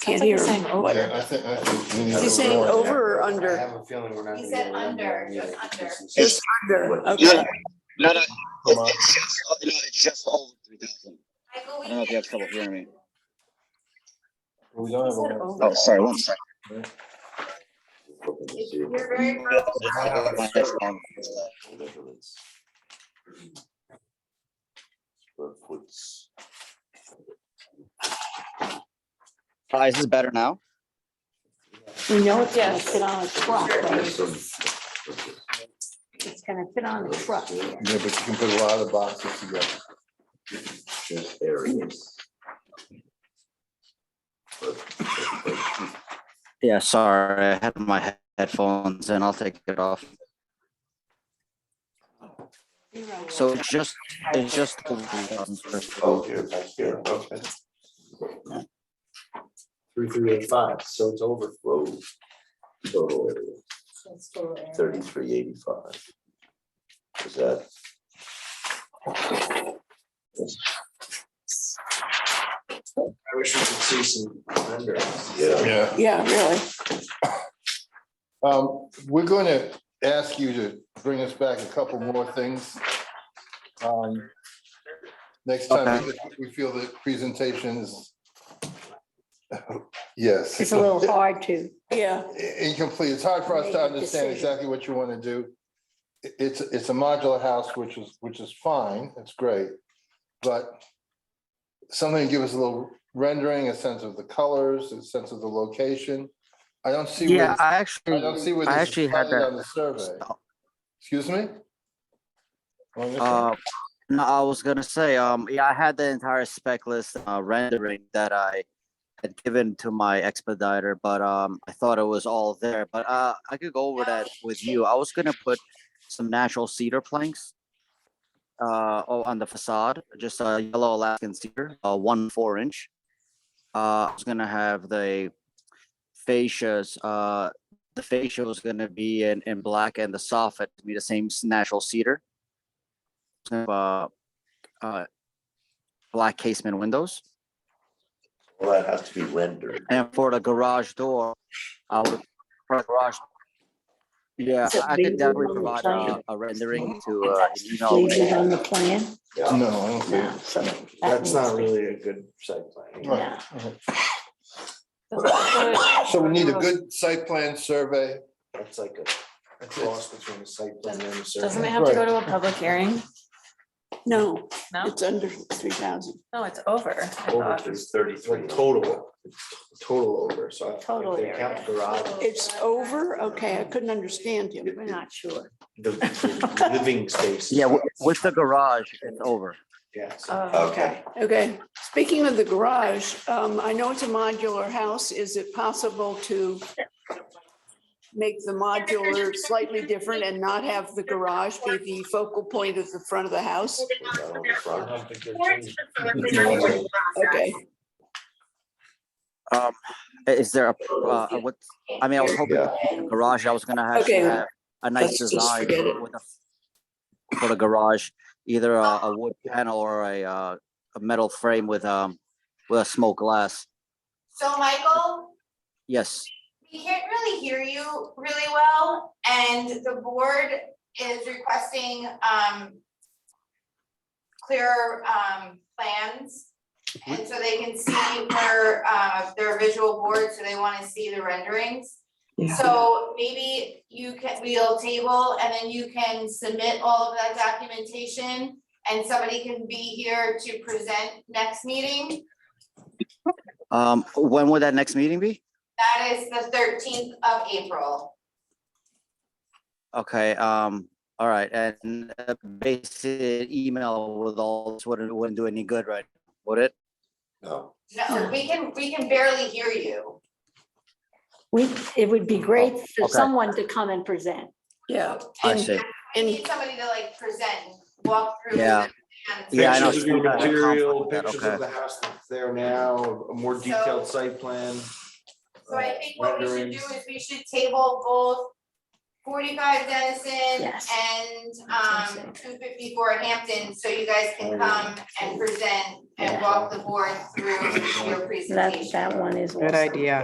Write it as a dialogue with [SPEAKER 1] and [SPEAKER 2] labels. [SPEAKER 1] Can't
[SPEAKER 2] Sounds like
[SPEAKER 1] hear.
[SPEAKER 2] you're saying over.
[SPEAKER 1] what-
[SPEAKER 3] Yeah, I think, I think. we need
[SPEAKER 1] Is
[SPEAKER 3] to
[SPEAKER 1] he saying
[SPEAKER 3] warn him.
[SPEAKER 1] over or
[SPEAKER 4] I
[SPEAKER 1] under?
[SPEAKER 4] have a feeling we're not.
[SPEAKER 2] He
[SPEAKER 4] gonna
[SPEAKER 2] said
[SPEAKER 4] get around
[SPEAKER 2] under,
[SPEAKER 4] that
[SPEAKER 2] just
[SPEAKER 4] either.
[SPEAKER 2] under.
[SPEAKER 4] It's-
[SPEAKER 1] Just under,
[SPEAKER 5] No,
[SPEAKER 1] okay.
[SPEAKER 5] no, no, it's,
[SPEAKER 3] Come on.
[SPEAKER 5] it's just, no, it's just over three thousand. I don't know if you have trouble hearing me.
[SPEAKER 3] We don't have a.
[SPEAKER 2] Is it
[SPEAKER 3] warrant.
[SPEAKER 2] over?
[SPEAKER 5] Oh, sorry, one second.
[SPEAKER 2] You're very.
[SPEAKER 5] I don't have my headphone. Hi, is this better now?
[SPEAKER 2] We know it's gonna fit on a truck, right?
[SPEAKER 6] Yes.
[SPEAKER 2] It's gonna fit on a truck.
[SPEAKER 3] Yeah, but you can put a lot of boxes together.
[SPEAKER 6] Just areas.
[SPEAKER 5] Yeah, sorry, I had my he- headphones and I'll take it off. So it's just, it's just. over 3,000 square
[SPEAKER 3] Oh,
[SPEAKER 5] foot.
[SPEAKER 6] here, back here, okay.
[SPEAKER 4] Three, three, eight, five, so it's over.
[SPEAKER 6] Road. Total area,
[SPEAKER 2] Thirty.
[SPEAKER 6] thirty-three eighty-five. Is that?
[SPEAKER 4] I wish we could see some under.
[SPEAKER 6] Yeah.
[SPEAKER 3] Yeah.
[SPEAKER 1] Yeah, really.
[SPEAKER 3] Um, we're going to ask you to bring us back a couple more things. Um, Next time, we feel that presentations. Yes.
[SPEAKER 2] It's a little hard to.
[SPEAKER 1] Yeah,
[SPEAKER 3] incomplete. It's hard for us
[SPEAKER 2] Make
[SPEAKER 3] to
[SPEAKER 2] a
[SPEAKER 3] understand
[SPEAKER 2] decision.
[SPEAKER 3] exactly what you want to do. I- It's, it's a modular house, which is, which is fine. It's great. But something to give us a little rendering, a sense of the colors, a sense of the location. I don't see. where
[SPEAKER 5] Yeah,
[SPEAKER 3] this-
[SPEAKER 5] I
[SPEAKER 3] I
[SPEAKER 5] actually,
[SPEAKER 3] don't see where
[SPEAKER 5] I
[SPEAKER 3] this
[SPEAKER 5] actually
[SPEAKER 3] is
[SPEAKER 5] had
[SPEAKER 3] plotted on
[SPEAKER 5] that.
[SPEAKER 3] the survey. Excuse me? Oh, yes, sir.
[SPEAKER 5] Uh, no, I was gonna say, um, yeah, I had the entire spec list uh, rendering that I had given to my expediter, but um, I thought it was all there. But uh, I could go over that with you. I was gonna put some natural cedar planks uh, oh, on the facade, just a yellow Alaskan cedar, uh, one four inch. Uh, I was gonna have the fascias. Uh, the fascia was gonna be in in black, and the soffit to be the same s- natural cedar have, uh, uh, black casement windows.
[SPEAKER 6] Well, that has to be rendered.
[SPEAKER 5] And for the garage door, I would, for the garage. Yeah,
[SPEAKER 2] Is it
[SPEAKER 5] I
[SPEAKER 2] labeled
[SPEAKER 5] could definitely
[SPEAKER 2] on the
[SPEAKER 5] provide
[SPEAKER 2] plan?
[SPEAKER 5] a- a rendering to, uh, you
[SPEAKER 2] Leave it
[SPEAKER 5] know.
[SPEAKER 2] on the plan.
[SPEAKER 3] No, I don't see it.
[SPEAKER 2] So
[SPEAKER 4] That's not really a good site plan.
[SPEAKER 3] Right. So we need a good site plan survey.
[SPEAKER 4] That's like a a cross between a site plan and a survey.
[SPEAKER 7] Doesn't it have to go
[SPEAKER 3] Right.
[SPEAKER 7] to a public hearing?
[SPEAKER 1] no,
[SPEAKER 7] No,
[SPEAKER 1] it's under three thousand.
[SPEAKER 7] no, it's over. I
[SPEAKER 4] Over
[SPEAKER 7] thought.
[SPEAKER 4] to thirty-three. Total, total over, so. if
[SPEAKER 2] Total
[SPEAKER 4] They count
[SPEAKER 2] area.
[SPEAKER 4] the garage.
[SPEAKER 1] It's over, okay, I couldn't understand him.
[SPEAKER 2] We're not sure.
[SPEAKER 4] the- the Living space.
[SPEAKER 5] Yeah, wi- with the garage, it's over.
[SPEAKER 4] Yeah, so
[SPEAKER 7] Oh,
[SPEAKER 6] Okay.
[SPEAKER 1] Uh, Okay, speaking of the garage, um, I know it's a modular house. Is it possible to make the modular slightly different and not have the garage be the focal point of the front of the house?
[SPEAKER 6] Put that on the
[SPEAKER 4] I
[SPEAKER 6] front.
[SPEAKER 4] don't think they're changing.
[SPEAKER 1] Okay,
[SPEAKER 5] Um, i- is there a, uh, what, I mean, I was hoping
[SPEAKER 6] Yeah.
[SPEAKER 5] the garage, I was gonna have
[SPEAKER 1] Okay,
[SPEAKER 5] have a nice
[SPEAKER 1] let's just
[SPEAKER 5] design
[SPEAKER 1] forget it.
[SPEAKER 5] with a- for the garage, either a, a wood panel or a, uh, a metal frame with, um, with a smoked glass.
[SPEAKER 8] So Michael,
[SPEAKER 5] Yes.
[SPEAKER 8] we can't really hear you really well, and the board is requesting um clearer um plans. And so they can see their uh their visual board, so they wanna see the renderings.
[SPEAKER 1] Yeah.
[SPEAKER 8] So maybe you can, we'll table and then you can submit all of that documentation and somebody can be here to present next meeting.
[SPEAKER 5] Um, when would that next meeting be?
[SPEAKER 8] That is the thirteenth of April.
[SPEAKER 5] Okay, um, all right, and uh, basic email with all, this wouldn't, wouldn't do any good, right? Would it?
[SPEAKER 6] No.
[SPEAKER 8] No, we can, we can barely hear you.
[SPEAKER 2] We, it would be great for
[SPEAKER 5] Okay.
[SPEAKER 2] someone to come and present.
[SPEAKER 1] yeah.
[SPEAKER 5] I
[SPEAKER 1] And-
[SPEAKER 5] see.
[SPEAKER 8] We
[SPEAKER 1] And
[SPEAKER 8] need somebody to like present, walk through.
[SPEAKER 5] Yeah.
[SPEAKER 8] and-
[SPEAKER 5] Yeah, I know.
[SPEAKER 4] Pictures of your material,
[SPEAKER 5] Conflict with that,
[SPEAKER 4] pictures of
[SPEAKER 5] okay.
[SPEAKER 4] the house that's there now, a more detailed site plan.
[SPEAKER 8] So I
[SPEAKER 4] uh,
[SPEAKER 8] think what we should do
[SPEAKER 4] renderings.
[SPEAKER 8] is we should table both forty-five Denison
[SPEAKER 7] Yes.
[SPEAKER 8] and,
[SPEAKER 7] That's what
[SPEAKER 8] um,
[SPEAKER 7] I'm
[SPEAKER 8] two fifty-four Hampton, so you guys can come and present and walk the board through your presentation.
[SPEAKER 2] That, that one is.
[SPEAKER 9] Good
[SPEAKER 2] also-
[SPEAKER 9] idea.